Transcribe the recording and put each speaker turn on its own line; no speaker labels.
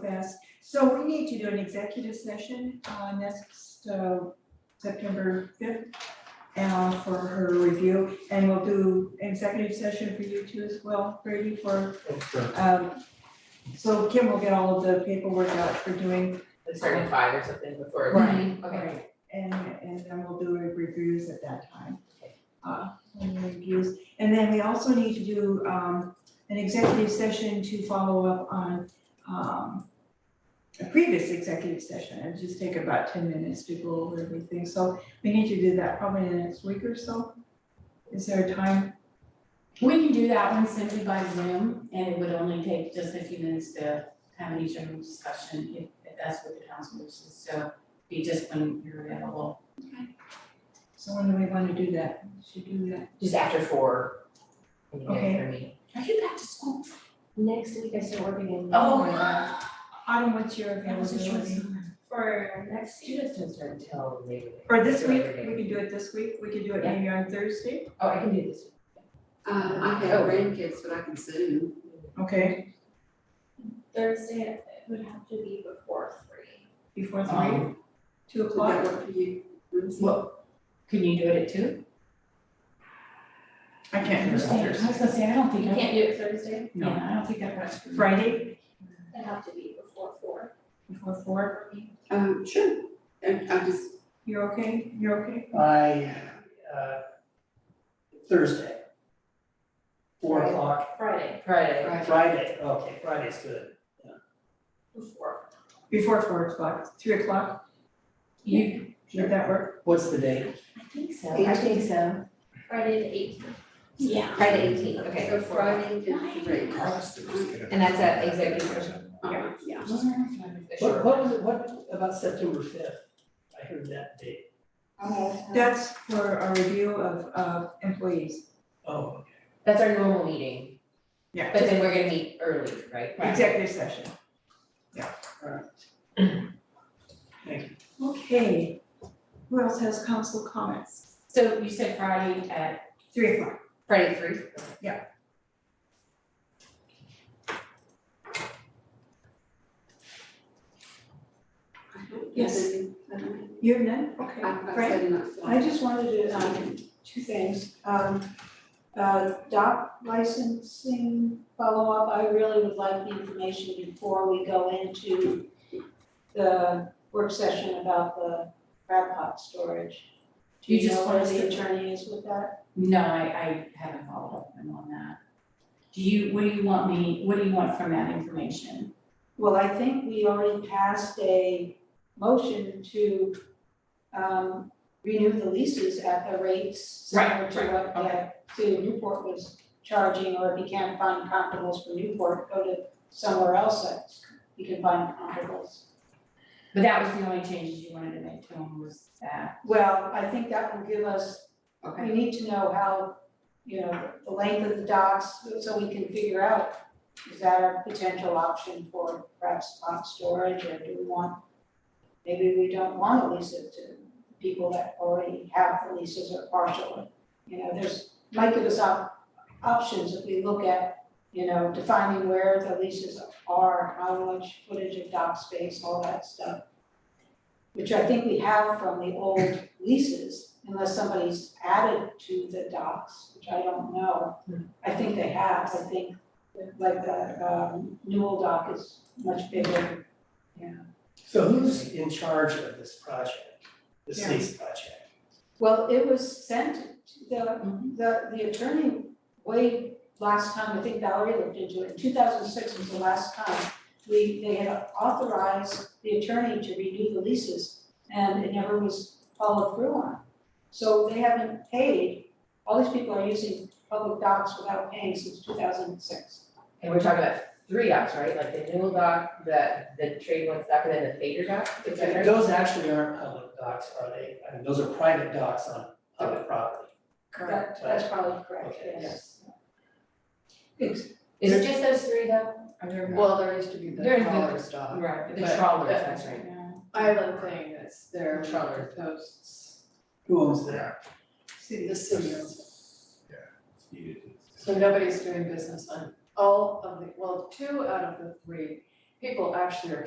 fast. So we need to do an executive session uh, next uh, September fifth uh, for her review, and we'll do an executive session for you too as well, Brady, for,
Okay.
um, so Kim will get all of the paperwork out for doing.
It's starting at five or something before.
Right.
Okay.
And, and then we'll do reviews at that time.
Okay.
Uh, And reviews, and then we also need to do um, an executive session to follow up on um, a previous executive session, and just take about ten minutes to go over everything, so we need to do that probably in the next week or so. Is there a time?
We can do that one simply by Zoom, and it would only take just a few minutes to have an each room discussion, if, if that's what the council wishes, so be just when you're available.
So when do we want to do that? Should do that.
Just after four. when you get
Okay.
your meeting.
Are you back to school?
Next week I start working in.
Oh.
Autumn, what's your
That was a short
availability?
summer.
For next
She doesn't start until later.
Or this
Till
week,
later.
we could do it this week, we could do it
Yeah.
maybe on Thursday,
Oh, I can do this.
Um, I
Oh.
have grandkids, but I can Zoom.
okay,
Thursday, it would have to be before three.
before three,
Um,
two
Does that
o'clock?
work for you? Lindsay?
Well, can you do it at two?
I can't do
I was
Thursday.
gonna say, I don't
You
think, I-
can't do it Thursday,
No.
yeah, I don't think that works for me.
Friday,
it'd have to be before four.
before four,
Um, sure, and I just,
you're okay, you're okay?
I, uh, Thursday. Four o'clock,
Friday
Friday.
Friday, okay, Friday's good.
before.
Before four o'clock, three o'clock,
You,
should that work?
What's the date?
I think so, I think so.
Friday the eighteenth.
Yeah.
Friday eighteen, okay.
so Friday is great.
And that's at executive session.
Uh-huh.
Uh, yeah.
Wasn't there a Friday?
What, what was it, what about September fifth? I heard that date.
That's for a review of, of employees.
Oh,
That's our normal meeting,
Yeah.
but then we're gonna meet early, right?
Executive session. Yeah.
Alright. Thank
Okay, who else has council comments?
So you said Friday at,
Three o'clock,
Friday three.
I don't have
Yes.
any- I don't have-
you have none? Okay,
I- I've
Fran?
said enough.
I just wanted to, um, two things, um, uh, doc licensing follow-up, I really would like the information before we go into the work session about the crab pot storage. Do
You
you
just
know
want
where
us to-
the attorney is with that?
no, I, I haven't followed up with them on that. Do you, what do you want me, what do you want from that information?
Well, I think we already passed a motion to, um, renew the leases at the rates similar
Right,
to
right,
what,
okay.
yeah, to Newport was charging, or if you can't find comparables for Newport, go to somewhere else that you can find comparables.
But that was the only changes you wanted to make to them was that,
Well, I think that will give us, we
okay?
need to know how, you know, the length of the docks, so we can figure out, is that a potential option for perhaps spot storage, or do we want, maybe we don't want to lease it to people that already have the leases or partial, you know, there's, might give us op- options if we look at, you know, defining where the leases are, how much footage of dock space, all that stuff which I think we have from the old leases, unless somebody's added to the docks, which I don't know. I think they have, I think, like the um Newell dock is much bigger.
So who's in charge of this project, this
Yeah.
lease project?
Well, it was sent to the,
Mhm.
the, the attorney way last time, I think Valerie looked into it, in two thousand six was the last time. We, they had authorized the attorney to renew the leases and it never was followed through on. So they haven't paid, all these people are using public docs without paying since two thousand six.
And we're talking about three docs, right? Like the Newell doc, the, the trade one doc, and then the Fader doc, is that right?
Those actually aren't public docs, are they? I mean, those are private docs on public property.
Correct. That's probably correct,
Okay,
yes. It's-
Is it just those three though? Are there more?
Well, there used to be the
There's the-
collar stock.
Right, the
but-
trawlers, that's right.
Island thing that's there,
The trawler.
the posts,
Who owns that?
city.
the city owns it.
needed.
So nobody's doing business on all of the, well, two out of the three people actually are